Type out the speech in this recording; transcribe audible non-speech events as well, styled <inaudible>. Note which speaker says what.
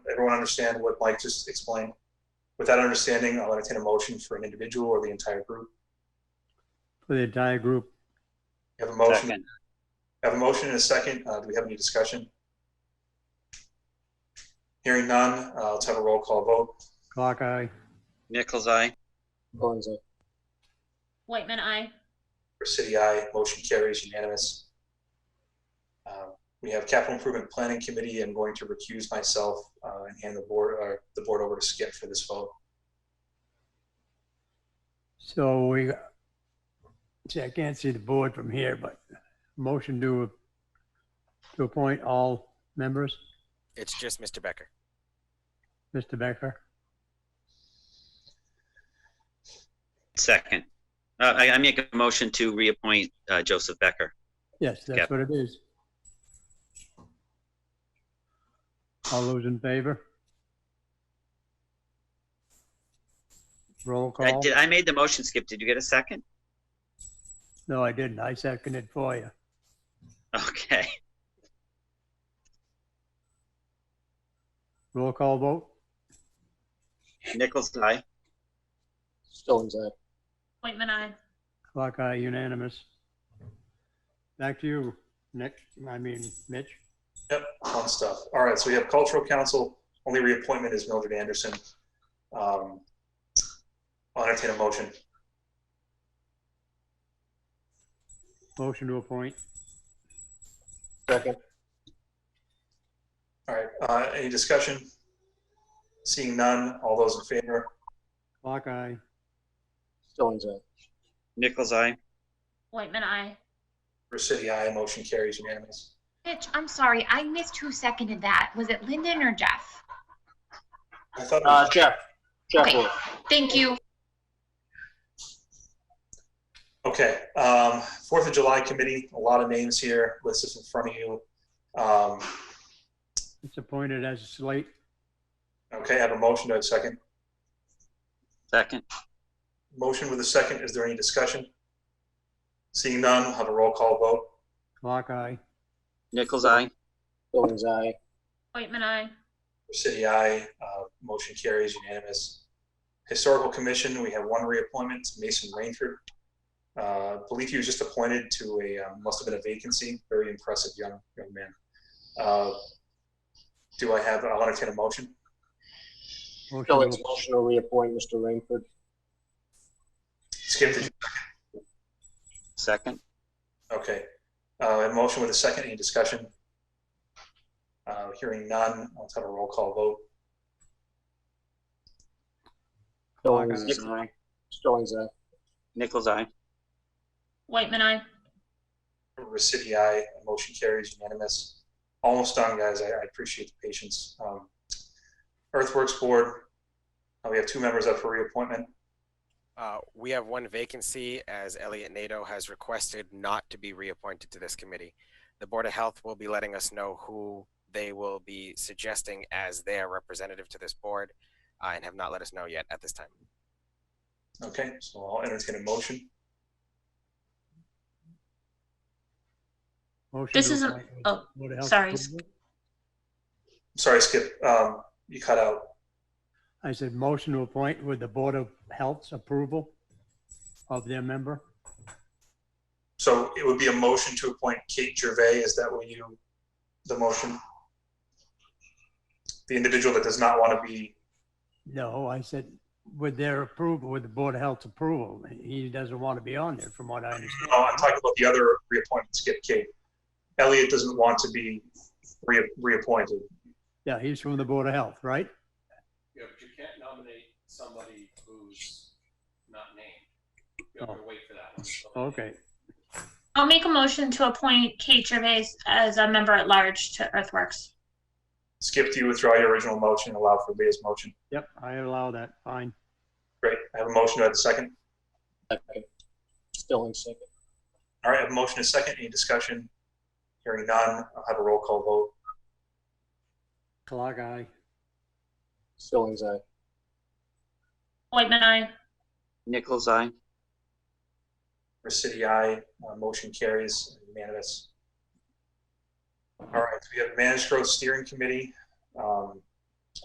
Speaker 1: everyone understand what Mike just explained? With that understanding, I'll entertain a motion for an individual or the entire group.
Speaker 2: for the entire group.
Speaker 1: You have a motion,
Speaker 3: Second.
Speaker 1: have a motion and a second. Uh, do we have any discussion? Hearing none, uh, let's have a roll call vote.
Speaker 2: Clock eye,
Speaker 3: Nichols' eye.
Speaker 4: Bonzo,
Speaker 5: Whitman, I.
Speaker 1: For city, I motion carries unanimous. Um, We have capital improvement planning committee. I'm going to recuse myself uh, and hand the board, uh, the board over to Skip for this vote.
Speaker 2: so we, see, I can't see the board from here, but motion to, to appoint all members,
Speaker 6: It's just Mr. Becker.
Speaker 2: Mr. Becker.
Speaker 3: Second. Uh, I, I make a motion to reappoint uh, Joseph Becker.
Speaker 2: Yes,
Speaker 3: Yeah.
Speaker 2: that's what it is. All those in favor? Roll
Speaker 3: I,
Speaker 2: call?
Speaker 3: did, I made the motion, Skip. Did you get a second? <laughs>
Speaker 2: No, I didn't. I seconded for you.
Speaker 3: Okay.
Speaker 2: Roll call vote?
Speaker 3: Nichols' eye.
Speaker 4: Stone's Eye,
Speaker 5: Whitman, I.
Speaker 2: Clock eye unanimous. Back to you, Nick, I mean Mitch.
Speaker 1: Yep, fun stuff. All right, so we have cultural council. Only reappointment is Mildred Anderson. Um, I'll entertain a motion.
Speaker 2: Motion to appoint.
Speaker 4: second,
Speaker 1: All right, uh, any discussion? Seeing none, all those in favor?
Speaker 2: Clock eye.
Speaker 4: Stone's Eye,
Speaker 3: Nichols' eye.
Speaker 5: Whitman, I.
Speaker 1: For city, aye, motion carries unanimous.
Speaker 7: Mitch, I'm sorry, I missed who seconded that. Was it Lyndon or Jeff?
Speaker 1: I thought, it
Speaker 4: uh,
Speaker 1: was-
Speaker 4: Jeff, Jeff
Speaker 7: Okay.
Speaker 4: Wolf.
Speaker 7: Thank you.
Speaker 1: okay, um, Fourth of July committee, a lot of names here, list is in front of you. Um,
Speaker 2: It's appointed as a slate.
Speaker 1: okay, I have a motion, do I have a second?
Speaker 3: Second.
Speaker 1: Motion with a second, is there any discussion? Seeing none, I'll have a roll call vote.
Speaker 2: Clock eye.
Speaker 3: Nichols' eye.
Speaker 4: Stone's Eye,
Speaker 5: Whitman, I.
Speaker 1: For City, aye. Uh, Motion carries unanimous. Historical Commission, we have one reappointment, Mason Rainford. Uh, I believe he was just appointed to a, um, must have been a vacancy, very impressive young, young man. Uh, Do I have, I'll entertain a motion.
Speaker 2: Motion
Speaker 4: so
Speaker 2: to
Speaker 4: it's
Speaker 2: app-
Speaker 4: motion to reappoint Mr. Rainford.
Speaker 1: Skip, did you-
Speaker 3: Second.
Speaker 1: okay. Uh, A motion with a second, any discussion? Uh, Hearing none, let's have a roll call vote.
Speaker 4: Stone's,
Speaker 3: Nichols' eye.
Speaker 4: Stone's Eye,
Speaker 3: Nichols' eye.
Speaker 5: Whitman, I.
Speaker 1: Recity, aye. Motion carries unanimous. Almost done, guys. I, I appreciate the patience. Um, Earthworks Board, uh, we have two members up for reappointment.
Speaker 6: Uh, we have one vacancy as Elliot Nato has requested not to be reappointed to this committee. The Board of Health will be letting us know who they will be suggesting as their representative to this board uh, and have not let us know yet at this time.
Speaker 1: Okay, so I'll entertain a motion.
Speaker 2: motion
Speaker 5: This
Speaker 2: to
Speaker 5: isn't-
Speaker 2: appoint-
Speaker 5: oh,
Speaker 2: Board of Health
Speaker 5: sorry.
Speaker 2: approval.
Speaker 1: Sorry, Skip, um, you cut out.
Speaker 2: I said motion to appoint with the Board of Health's approval of their member.
Speaker 1: So it would be a motion to appoint Kate Gervais. Is that what you, the motion? The individual that does not want to be,
Speaker 2: No, I said with their approval, with the Board of Health's approval. He doesn't want to be on there from what I understand.
Speaker 1: oh, I'm talking about the other reappointment, Skip Kate. Elliot doesn't want to be re- reappointed.
Speaker 2: Yeah, he's from the Board of Health, right?
Speaker 8: you know, but you can't nominate somebody who's not named. You have to wait for that one. to come in.
Speaker 2: Oh. Okay.
Speaker 5: I'll make a motion to appoint Kate Gervais as a member at large to Earthworks.
Speaker 1: Skip, do you withdraw your original motion and allow for Leah's motion?
Speaker 2: Yep, I allow that. Fine.
Speaker 1: Great. I have a motion. Do I have a second?
Speaker 4: second, Stone's second,
Speaker 1: All right, I have a motion and a second. Any discussion? Hearing none, I'll have a roll call vote.
Speaker 2: Clock eye.
Speaker 4: Stone's Eye,
Speaker 5: Whitman, I.
Speaker 3: Nichols' eye.
Speaker 1: For city, aye. Uh, motion carries unanimous. All right, we have Managed Growth Steering Committee. Um,